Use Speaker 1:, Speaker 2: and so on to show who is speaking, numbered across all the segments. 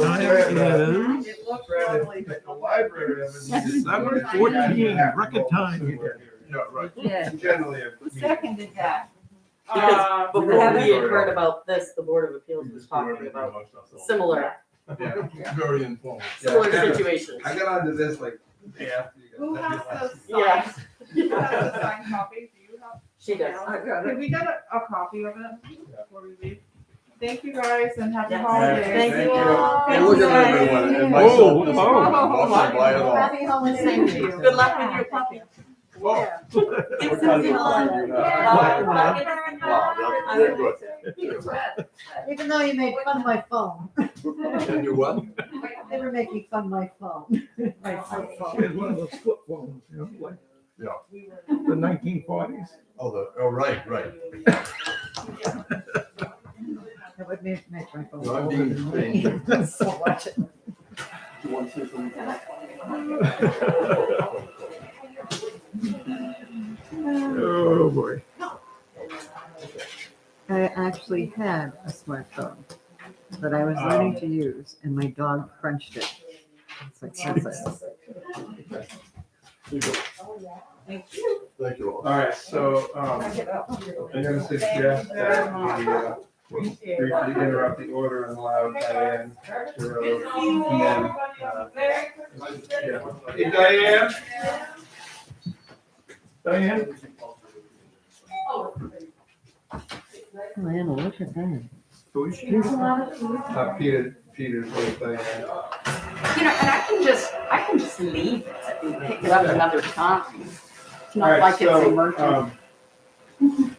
Speaker 1: Time is
Speaker 2: It looked
Speaker 3: Rather
Speaker 2: lovely.
Speaker 3: than the library of it is-
Speaker 1: December 14, record time.
Speaker 3: Yeah, right.
Speaker 4: Yeah.
Speaker 3: Generally. I
Speaker 2: Who
Speaker 3: mean,
Speaker 2: seconded that?
Speaker 4: Because-
Speaker 2: Uh,
Speaker 4: But we
Speaker 3: Yeah.
Speaker 4: haven't yet heard about this, the Board of Appeals
Speaker 3: you
Speaker 4: was
Speaker 3: just do
Speaker 4: talking
Speaker 3: everything
Speaker 4: about
Speaker 3: else, that's all.
Speaker 4: similar,
Speaker 3: Yeah, very informal.
Speaker 4: similar
Speaker 3: Yeah, I got-
Speaker 4: situations.
Speaker 3: I got onto this like. day after you guys-
Speaker 2: Who has those
Speaker 4: Yeah.
Speaker 2: signed, who has the signed copy? Do you have?
Speaker 4: She does.
Speaker 2: I Can we get a, a copy of it before we leave? Thank you guys and happy
Speaker 4: Yes.
Speaker 2: holidays.
Speaker 4: Thank you
Speaker 2: all.
Speaker 3: And look at everyone, and my
Speaker 1: Oh,
Speaker 3: son,
Speaker 1: oh.
Speaker 3: I'll buy it all.
Speaker 5: Happy holidays.
Speaker 2: Thank you.
Speaker 4: Good luck with your puppy.
Speaker 3: Whoa.
Speaker 4: Give
Speaker 3: What
Speaker 4: some
Speaker 3: time is it?
Speaker 4: people-
Speaker 3: Uh,
Speaker 4: Wow,
Speaker 3: Wow, they're good.
Speaker 5: Even though you made fun of my phone,
Speaker 3: And you what?
Speaker 5: they were making fun of my phone. My flip phone.
Speaker 1: one of those flip phones, you know, like
Speaker 3: Yeah.
Speaker 1: the nineteen forties.
Speaker 3: Oh, the, oh, right, right.
Speaker 5: It would make make my phone.
Speaker 3: No, I'm
Speaker 5: older
Speaker 3: being
Speaker 5: than mine. So watch it.
Speaker 3: You want to say something?
Speaker 1: Oh, boy.
Speaker 5: I actually had a smartphone that I was learning to use and my dog crunched it. It's like senseless.
Speaker 3: You go. Thank you all.
Speaker 6: All right, so, um, I'm gonna suggest that we, uh, briefly interrupt the order and allow Diane to,
Speaker 2: Good
Speaker 6: uh,
Speaker 2: seeing you, everybody.
Speaker 6: uh,
Speaker 2: Merry Christmas.
Speaker 6: yeah. Hey, Diane? Diane?
Speaker 5: Lana, look at that.
Speaker 6: Who is she? Uh, Peter, Peter's with Diane.
Speaker 7: You know, and I can just, I can just leave it and pick it up another time. It's
Speaker 6: All
Speaker 7: not
Speaker 6: right,
Speaker 7: like it's
Speaker 6: so,
Speaker 7: emergent.
Speaker 6: um,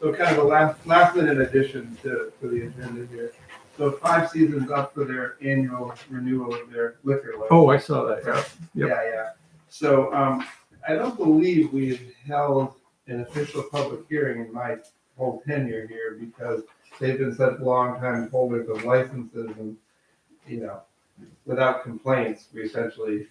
Speaker 6: So kind of a last, last minute addition to, to the agenda here. So Five Seasons up for their annual renewal of their liquor license.
Speaker 1: Oh, I saw that, yeah. Yep.
Speaker 6: Yeah, yeah. So um, I don't believe we've held an official public hearing in my whole tenure here because they've been such long-time holders of licenses and, you know, without complaints, we essentially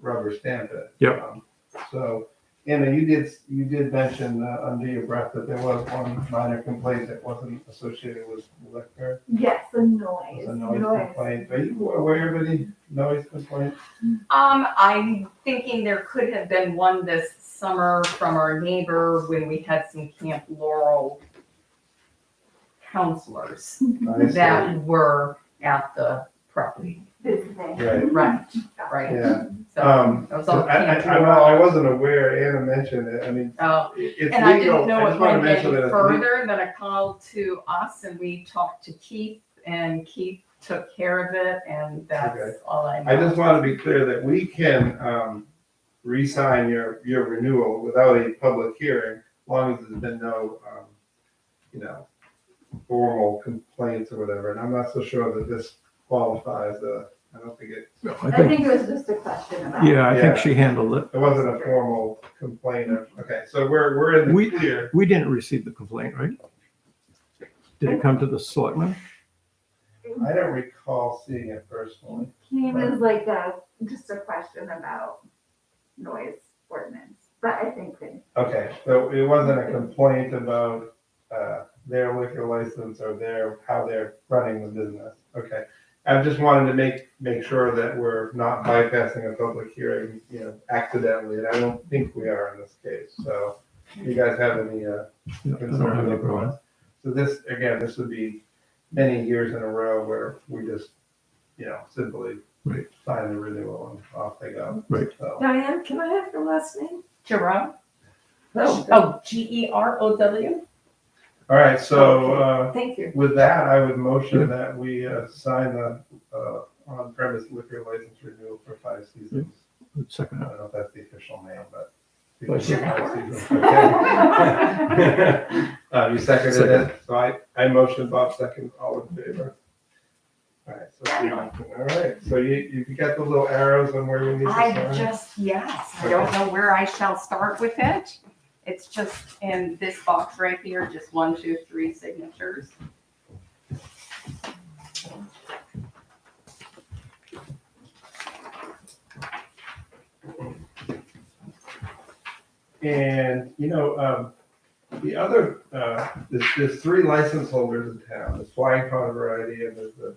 Speaker 6: rubber stamp it.
Speaker 1: Yep.
Speaker 6: Um, So, Anna, you did, you did mention uh, under your breath that there was one minor complaint that wasn't associated with liquor.
Speaker 8: Yes, the noise.
Speaker 6: It was a noise complaint. Are you aware of any noise complaints?
Speaker 7: Um, I'm thinking there could have been one this summer from our neighbor when we had some Camp Laurel counselors
Speaker 6: I see.
Speaker 7: that were at the property.
Speaker 8: Visiting.
Speaker 6: Right.
Speaker 7: Right, right.
Speaker 6: Yeah,
Speaker 7: So
Speaker 6: um,
Speaker 7: that was
Speaker 6: I,
Speaker 7: all
Speaker 6: I,
Speaker 7: Camp
Speaker 6: I, well, I
Speaker 7: Laurel.
Speaker 6: wasn't aware, Anna mentioned it, I mean,
Speaker 7: Oh,
Speaker 6: it- it's
Speaker 7: And I didn't
Speaker 6: legal,
Speaker 7: know
Speaker 6: I
Speaker 7: it
Speaker 6: just wanna
Speaker 7: went any
Speaker 6: mention that it's legal.
Speaker 7: further than a call to us and we talked to Keith and Keith took care of it and that's
Speaker 6: Okay.
Speaker 7: all I know.
Speaker 6: I just wanna be clear that we can, um, re-sign your, your renewal without a public hearing, as long as there's been no, um, you know, formal complaints or whatever, and I'm not so sure that this qualifies, uh, I don't think it,
Speaker 1: No, I
Speaker 8: I
Speaker 1: think,
Speaker 8: think it was just a question about.
Speaker 1: yeah, I
Speaker 6: Yeah.
Speaker 1: think she handled it.
Speaker 6: it wasn't a formal complaint, or- okay, so we're, we're in
Speaker 1: We-
Speaker 6: the clear.
Speaker 1: We didn't receive the complaint, right? Did it come to the selectmen?
Speaker 6: I don't recall seeing it personally.
Speaker 8: Came as like a, just a question about noise ordinance, but I think that
Speaker 6: Okay, so it wasn't a complaint about, uh, their liquor license or their, how they're running the business, okay? I just wanted to make, make sure that we're not bypassing a public hearing, you know, accidentally, and I don't think we are in this case, so. You guys have any, uh,
Speaker 1: No, I don't have
Speaker 6: concerns
Speaker 1: any
Speaker 6: with
Speaker 1: problem.
Speaker 6: that? So this, again, this would be many years in a row where we just, you know, simply
Speaker 1: Right.
Speaker 6: sign the renewal and off they go.
Speaker 1: Right.
Speaker 6: So,
Speaker 4: Diane, can I have your last name?
Speaker 7: Jerome?
Speaker 4: No.
Speaker 7: Oh, G E R O W?
Speaker 6: all right, so, uh,
Speaker 4: Thank you.
Speaker 6: With that, I would motion that we uh, sign the uh, on-premise liquor license renewal for Five Seasons. I
Speaker 1: Second,
Speaker 6: don't know if that's the official name, but.
Speaker 1: Five
Speaker 6: Okay. Uh, You seconded
Speaker 1: Second.
Speaker 6: it, so I, I motion, Bob second, all in favor. All right, so, all right, so you, you got those little arrows on where you need to
Speaker 7: I
Speaker 6: sign?
Speaker 7: just, yes, I don't know where I shall start with it. It's just in this box right here, just one, two, three signatures.
Speaker 6: And, you know, um, the other, uh, there's, there's three license holders in town, there's Flying Pond Variety and there's the